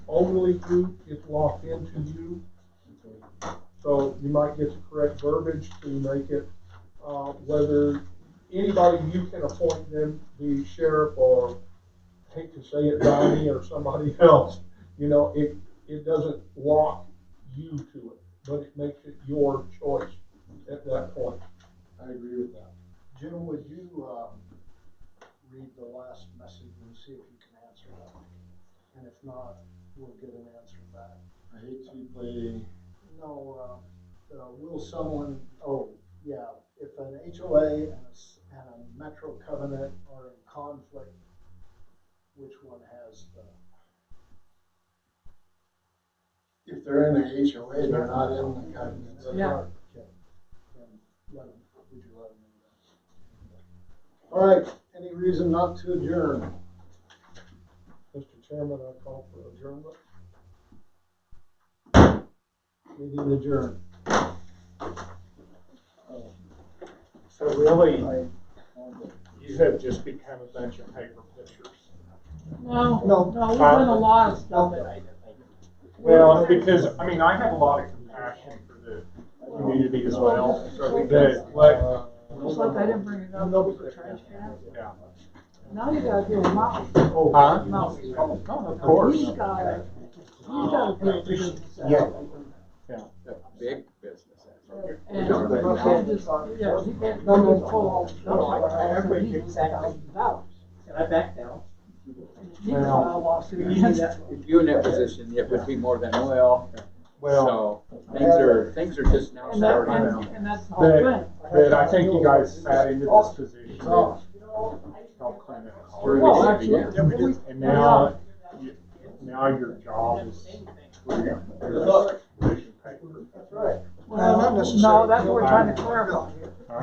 only group gets locked into you. So you might get the correct verbiage to make it, uh, whether anybody you can appoint them, the sheriff or, hate to say it, Donnie or somebody else, you know, it, it doesn't lock you to it, but it makes it your choice at that point. I agree with that. Jim, would you, um, read the last message and see if you can answer that? And if not, we'll get an answer back. I hate to be playing. No, uh, uh, will someone, oh, yeah, if an HOA and a, s- and a metro covenant are in conflict, which one has the? If they're in the HOA, they're not in the covenant. Yeah. Okay. And let 'em- would you let 'em know that? All right, any reason not to adjourn? Mr. Chairman, I call for adjournment. Meeting adjourned. So really, I- these have just become a bunch of paper pictures. No, No. no, we learned a lot of stuff. Well, because, I mean, I have a lot of compassion for the community as well, so that, like, Just like I didn't bring it up with the trash can. yeah. Now you gotta do a mouse, Huh? mouse. He's Oh, of course. gotta, he's gotta do a business. Big business. And you can't just, yeah, you can't go and pull all the stuff. So he needs thousand dollars. And I back down. And he's got a lawsuit against him. If you're in that position, it would be more than well, Well, so things are, things are just now And that, starting and, out. and that's the whole thing. but I think you guys sat into this position. to help clean it Well, up. actually, And now, you- now your job is. Look. Pushing paper. That's right. well, no, that's what we're trying to clarify.